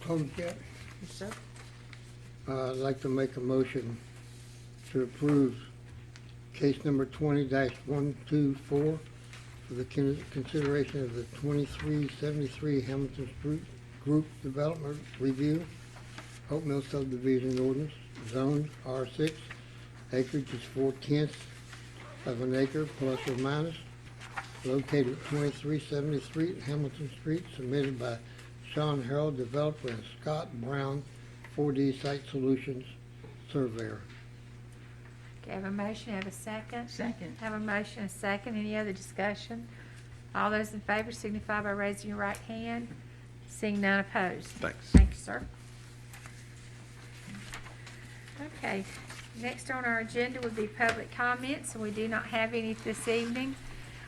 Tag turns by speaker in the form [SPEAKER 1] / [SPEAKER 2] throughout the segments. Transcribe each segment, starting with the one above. [SPEAKER 1] closed yet?
[SPEAKER 2] Yes, sir.
[SPEAKER 1] Uh, I'd like to make a motion to approve case number twenty one two four for the con- consideration of the twenty-three seventy-three Hamilton Street Group Development Review, Hope Mill subdivision ordinance, zone R six, acreage is four tenths of an acre plus or minus, located at twenty-three seventy-three Hamilton Street, submitted by Sean Harold, developer, and Scott Brown, 4D Site Solutions Surveyor.
[SPEAKER 3] Okay, have a motion, have a second?
[SPEAKER 2] Second.
[SPEAKER 3] Have a motion, a second, any other discussion? All those in favor signify by raising your right hand, seeing none opposed.
[SPEAKER 4] Thanks.
[SPEAKER 3] Thank you, sir. Okay, next on our agenda would be public comments, and we do not have any this evening.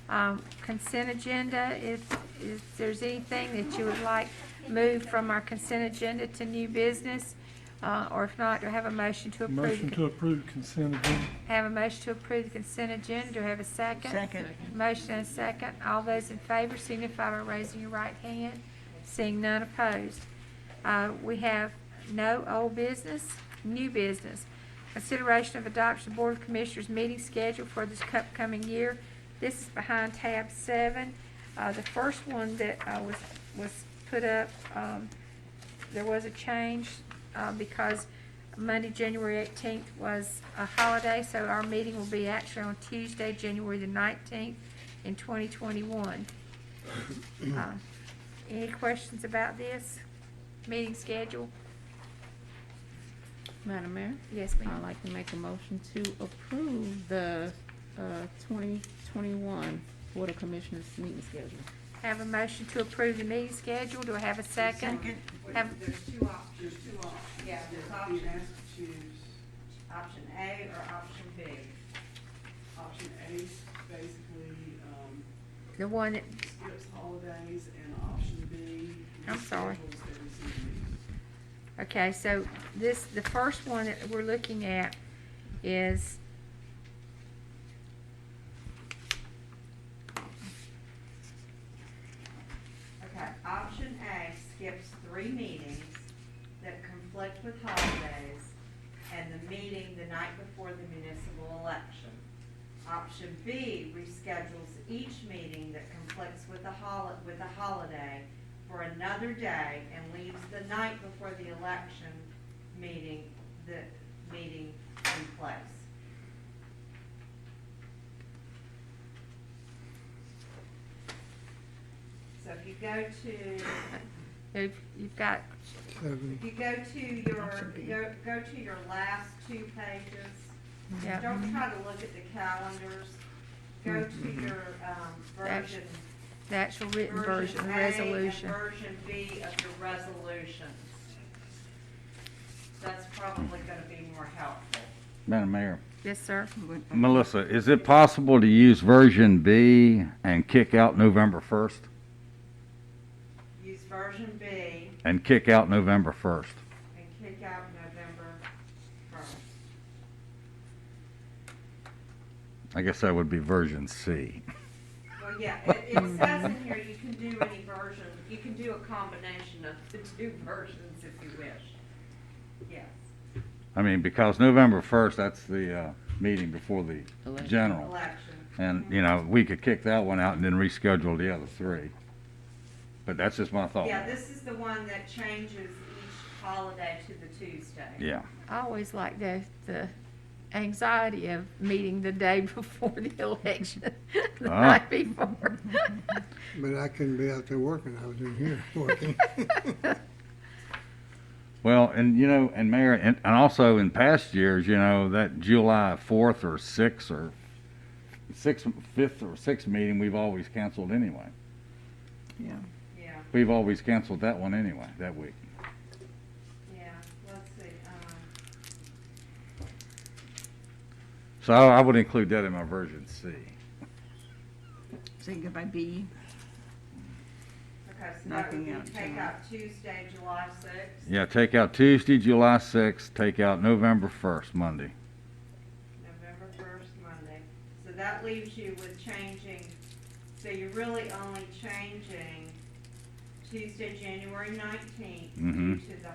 [SPEAKER 3] Um, Consent agenda, if, if there's anything that you would like moved from our consent agenda to new business, uh, or if not, do I have a motion to approve? the
[SPEAKER 5] Motion to approve consent agenda.
[SPEAKER 3] Have a motion to approve the consent agenda. Do I have a second?
[SPEAKER 2] Second.
[SPEAKER 3] Motion and a second. All those in favor signify by raising your right hand. Seeing none opposed. Uh, we have no old business, new business. Consideration of adoption of Board of Commissioners meeting schedule for this upcoming year. This is behind tab seven. Uh, the first one that, uh, was, was put up, um, there was a change, uh, because Monday, January eighteenth was a holiday, so our meeting will be actually on Tuesday, January the nineteenth in twenty twenty-one. Uh, Any questions about this meeting schedule?
[SPEAKER 6] Madam Mayor,
[SPEAKER 3] Yes, ma'am.
[SPEAKER 6] I'd like to make a motion to approve the uh, 2021 Board of Commissioners meeting schedule.
[SPEAKER 3] Have a motion to approve the meeting schedule. Do I have a second? Have,
[SPEAKER 7] There's two op, there's two op, yeah, there's options to choose, option A or option B. Option A basically, um,
[SPEAKER 3] the one that,
[SPEAKER 7] skips holidays and option B.
[SPEAKER 3] I'm sorry.
[SPEAKER 7] schedules every single week.
[SPEAKER 3] okay, so this, the first one that we're looking at is
[SPEAKER 7] Okay, option A skips three meetings that conflict with holidays and the meeting the night before the municipal election. Option B reschedules each meeting that conflicts with the hol, with a holiday for another day and leaves the night before the election meeting, the meeting in place. So if you go to
[SPEAKER 3] If you've got,
[SPEAKER 1] Seven.
[SPEAKER 7] If you go to your,
[SPEAKER 2] Option B.
[SPEAKER 7] go, go to your last two pages,
[SPEAKER 3] yeah,
[SPEAKER 7] don't try to look at the calendars. Go to
[SPEAKER 3] Mm-hmm.
[SPEAKER 7] your, um,
[SPEAKER 3] That's-
[SPEAKER 7] version.
[SPEAKER 3] the actual written version, the
[SPEAKER 7] A and
[SPEAKER 3] resolution.
[SPEAKER 7] Version B of your resolutions. That's probably gonna be more helpful.
[SPEAKER 8] Madam Mayor.
[SPEAKER 3] Yes, sir.
[SPEAKER 8] Melissa, is it possible to use version B and kick out November 1st?
[SPEAKER 7] Use version B
[SPEAKER 8] And kick out November 1st?
[SPEAKER 7] and kick out November first.
[SPEAKER 8] I guess that would be version C.
[SPEAKER 7] Well, yeah, it, it says in here you can do any version, you can do a combination of the two versions if you wish. Yes.
[SPEAKER 8] I mean, because November 1st, that's the uh, meeting before the
[SPEAKER 6] Election.
[SPEAKER 8] general.
[SPEAKER 7] Election.
[SPEAKER 8] And, you know, we could kick that one out and then reschedule the other three. But that's just my thought.
[SPEAKER 7] Yeah, this is the one that changes each holiday to the Tuesday.
[SPEAKER 8] Yeah.
[SPEAKER 3] I always like the, the anxiety of meeting the day before the election, the
[SPEAKER 8] Ah.
[SPEAKER 3] night before.
[SPEAKER 1] But I couldn't be out there working, I was in here working.
[SPEAKER 8] Well, and you know, and Mayor, and, and also in past years, you know, that July fourth or sixth or sixth, fifth or sixth meeting, we've always canceled anyway.
[SPEAKER 2] Yeah.
[SPEAKER 7] Yeah,
[SPEAKER 8] We've always canceled that one anyway, that week.
[SPEAKER 7] yeah, let's see, um,
[SPEAKER 8] So I would include that in my version C.
[SPEAKER 2] So you can go by B.
[SPEAKER 7] okay, so that would
[SPEAKER 2] Nothing
[SPEAKER 7] be
[SPEAKER 2] out,
[SPEAKER 7] take
[SPEAKER 2] July.
[SPEAKER 7] out Tuesday, July sixth,
[SPEAKER 8] Yeah, take out Tuesday, July sixth, take out November first, Monday.
[SPEAKER 7] November first, Monday. So that leaves you with changing, so you're really only changing Tuesday, January nineteenth,
[SPEAKER 8] Mhm.
[SPEAKER 7] due to the